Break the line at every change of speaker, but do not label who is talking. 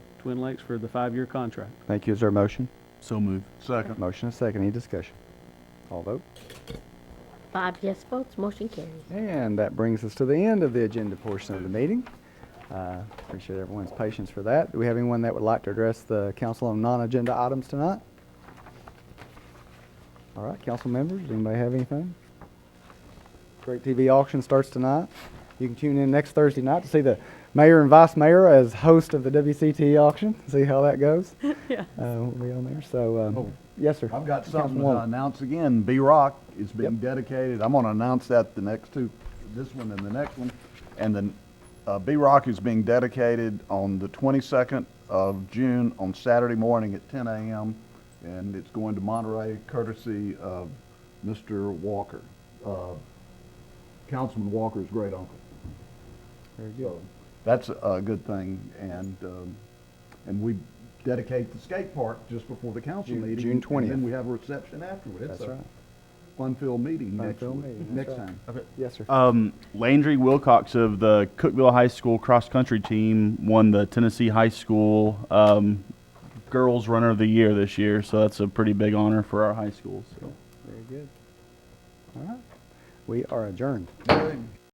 Twin Lakes for the five-year contract.
Thank you. Is there a motion?
So moved.
Second.
Motion and second. Any discussion? All vote.
Five yes votes, motion carries.
And that brings us to the end of the agenda portion of the meeting. Uh, Appreciate everyone's patience for that. Do we have anyone that would like to address the council on non-agenda items tonight? All right, council members, anybody have anything? Great TV auction starts tonight. You can tune in next Thursday night to see the mayor and vice mayor as host of the WCT auction, see how that goes. Yeah. We'll be on there, so, um, yes, sir.
Oh. I've got something to
Councilwoman.
announce again. B-Rock is being
Yep.
dedicated. I'm going to announce that the next two, this one and the next one. And then uh, B-Rock is being dedicated on the 22nd of June on Saturday morning at 10 a.m. And it's going to Monterey courtesy of Mr. Walker, uh, Councilman Walker's great uncle.
Very good.
So that's a good thing, and, um, and we dedicate the skate park just before the council
June-
meeting.
June
And
20th.
then we have a reception afterward. It's
That's
a
right.
fun-filled meeting next,
Fun-filled
week-
meeting, that's
next
right.
time.
Yes, sir.
Um, Landry Wilcox of the Cookville High School cross country team won the Tennessee High School um, Girls Runner of the Year this year, so that's a pretty big honor for our high school. So.
Very good. All right. We are adjourned.